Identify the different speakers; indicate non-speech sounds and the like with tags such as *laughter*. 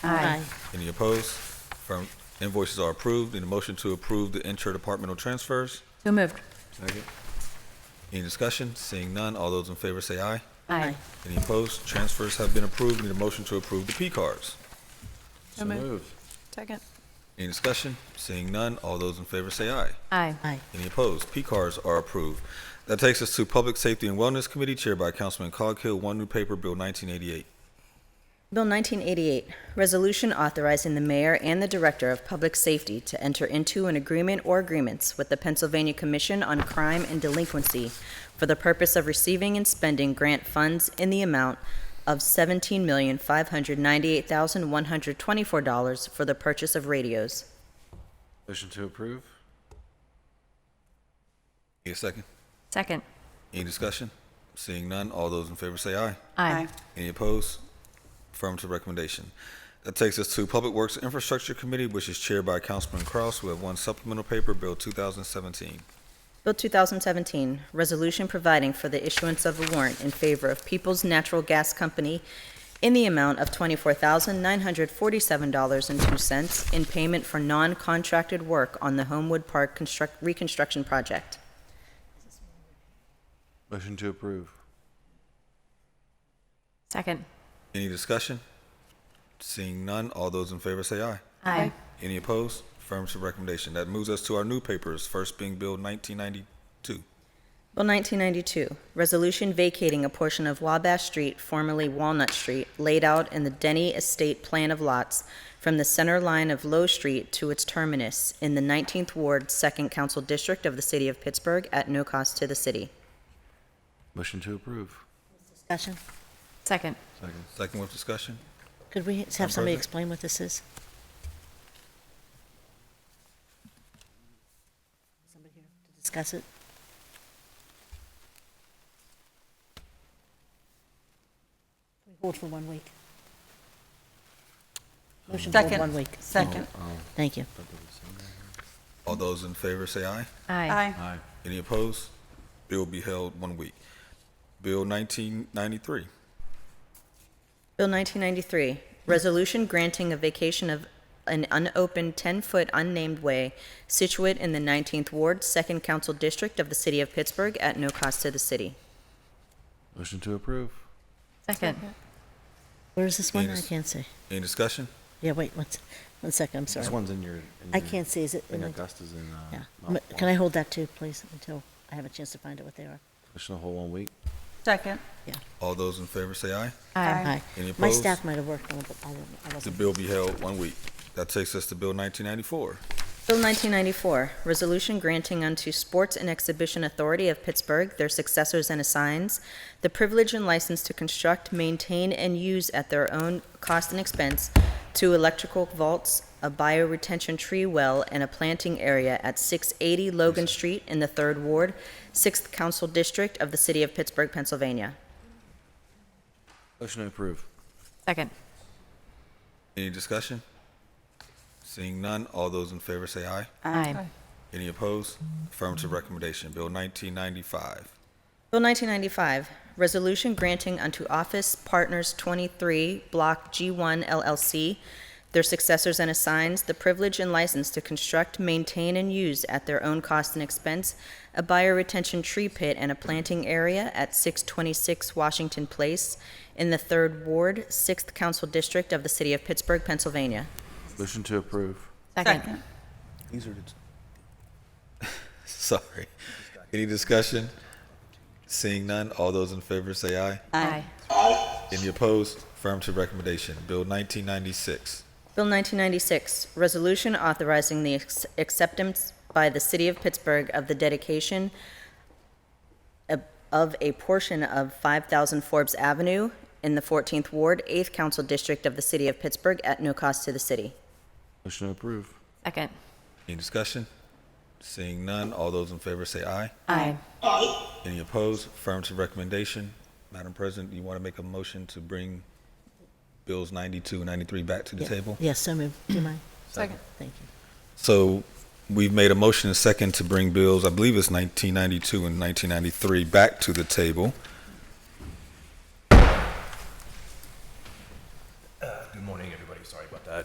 Speaker 1: Aye.
Speaker 2: Any opposed? Affirm- Invoices are approved. Need a motion to approve the interdepartmental transfers?
Speaker 1: So moved.
Speaker 2: Second. Any discussion? Seeing none, all those in favor say aye.
Speaker 1: Aye.
Speaker 2: Any opposed? Transfers have been approved. Need a motion to approve the P cards.
Speaker 3: So moved. Second.
Speaker 2: Any discussion? Seeing none, all those in favor say aye.
Speaker 1: Aye.
Speaker 4: Aye.
Speaker 2: Any opposed? P cards are approved. That takes us to Public Safety and Wellness Committee chaired by Councilman Coghill, one new paper, Bill 1988.
Speaker 4: Bill 1988, resolution authorizing the mayor and the director of public safety to enter into an agreement or agreements with the Pennsylvania Commission on Crime and Delinquency for the purpose of receiving and spending grant funds in the amount of $17,598,124 for the purchase of radios.
Speaker 3: Motion to approve?
Speaker 2: Need a second?
Speaker 1: Second.
Speaker 2: Any discussion? Seeing none, all those in favor say aye.
Speaker 1: Aye.
Speaker 2: Any opposed? Affirmative recommendation. That takes us to Public Works Infrastructure Committee, which is chaired by Councilman Kraus. We have one supplemental paper, Bill 2017.
Speaker 4: Bill 2017, resolution providing for the issuance of a warrant in favor of Peoples Natural Gas Company in the amount of $24,947.02 in payment for non-contracted work on the Homewood Park construct- reconstruction project.
Speaker 3: Motion to approve.
Speaker 1: Second.
Speaker 2: Any discussion? Seeing none, all those in favor say aye.
Speaker 1: Aye.
Speaker 2: Any opposed? Affirmative recommendation. That moves us to our new papers, first being Bill 1992.
Speaker 4: Bill 1992, resolution vacating a portion of Wabash Street, formerly Walnut Street, laid out in the Denny Estate Plan of Lots from the center line of Low Street to its terminus in the 19th Ward, 2nd Council District of the City of Pittsburgh at no cost to the city.
Speaker 3: Motion to approve.
Speaker 5: Discussion?
Speaker 1: Second.
Speaker 3: Second.
Speaker 2: Second with discussion?
Speaker 5: Could we
Speaker 2: Madam
Speaker 5: have
Speaker 2: President?
Speaker 5: somebody explain what this is? Somebody here to discuss it? We Hold for one week. Motion to hold
Speaker 6: Second.
Speaker 5: one week.
Speaker 6: Second.
Speaker 2: Oh,
Speaker 5: Thank you.
Speaker 2: All those in favor say aye.
Speaker 1: Aye.
Speaker 3: Aye.
Speaker 2: Any opposed? Bill will be held one week. Bill 1993.
Speaker 4: Bill 1993, resolution granting a vacation of an unopened 10-foot unnamed way situate in the 19th Ward, 2nd Council District of the City of Pittsburgh at no cost to the city.
Speaker 3: Motion to approve.
Speaker 1: Second.
Speaker 5: Where is this one? I
Speaker 2: Venus.
Speaker 5: can't see.
Speaker 2: Any discussion?
Speaker 5: Yeah, wait, one, s- one second, I'm
Speaker 3: This
Speaker 5: sorry.
Speaker 3: one's in your. in
Speaker 5: I
Speaker 3: your-
Speaker 5: can't see, is it?
Speaker 3: I think
Speaker 5: in the-
Speaker 3: Augusta's in, uh.
Speaker 5: Yeah.
Speaker 2: Oh,
Speaker 3: Mount
Speaker 5: M- Can I
Speaker 3: Wal-
Speaker 5: hold that too, please, until I have a chance to find out what they are?
Speaker 3: Motion to hold one week?
Speaker 6: Second.
Speaker 5: Yeah.
Speaker 2: All those in favor say aye.
Speaker 1: Aye.
Speaker 5: Aye.
Speaker 2: Any
Speaker 5: My
Speaker 2: opposed?
Speaker 5: staff might have worked on it, but I didn't, I
Speaker 2: The
Speaker 5: wasn't.
Speaker 2: bill be held one week. That takes us to Bill 1994.
Speaker 4: Bill 1994, resolution granting unto Sports and Exhibition Authority of Pittsburgh, their successors and assigns, the privilege and license to construct, maintain, and use at their own cost and expense two electrical vaults, a bioretention tree well, and a planting area at 680 Logan Street in the 3rd Ward, 6th Council District of the City of Pittsburgh, Pennsylvania.
Speaker 3: Motion to approve.
Speaker 1: Second.
Speaker 2: Any discussion? Seeing none, all those in favor say aye.
Speaker 1: Aye.
Speaker 2: Any opposed? Affirmative recommendation. Bill 1995.
Speaker 4: Bill 1995, resolution granting unto Office Partners 23, Block G1 LLC, their successors and assigns, the privilege and license to construct, maintain, and use at their own cost and expense a bioretention tree pit and a planting area at 626 Washington Place in the 3rd Ward, 6th Council District of the City of Pittsburgh, Pennsylvania.
Speaker 3: Motion to approve.
Speaker 1: Second.
Speaker 2: These are the. *laughs* Sorry. Any discussion? Seeing none, all those in favor say aye.
Speaker 1: Aye.
Speaker 2: Any opposed? Affirmative recommendation. Bill 1996.
Speaker 4: Bill 1996, resolution authorizing the ex- acceptance by the City of Pittsburgh of the dedication of- of a portion of 5,000 Forbes Avenue in the 14th Ward, 8th Council District of the City of Pittsburgh at no cost to the city.
Speaker 3: Motion to approve.
Speaker 1: Second.
Speaker 2: Any discussion? Seeing none, all those in favor say aye.
Speaker 1: Aye.
Speaker 2: Any opposed? Affirmative recommendation. Madam President, you want to make a motion to bring Bills 92 and 93 back to the
Speaker 5: Yeah.
Speaker 2: table?
Speaker 5: Yes, so moved. Do you mind?
Speaker 6: Second.
Speaker 5: Thank you.
Speaker 2: So we've made a motion and second to bring Bills, I believe it's 1992 and 1993, back to the table.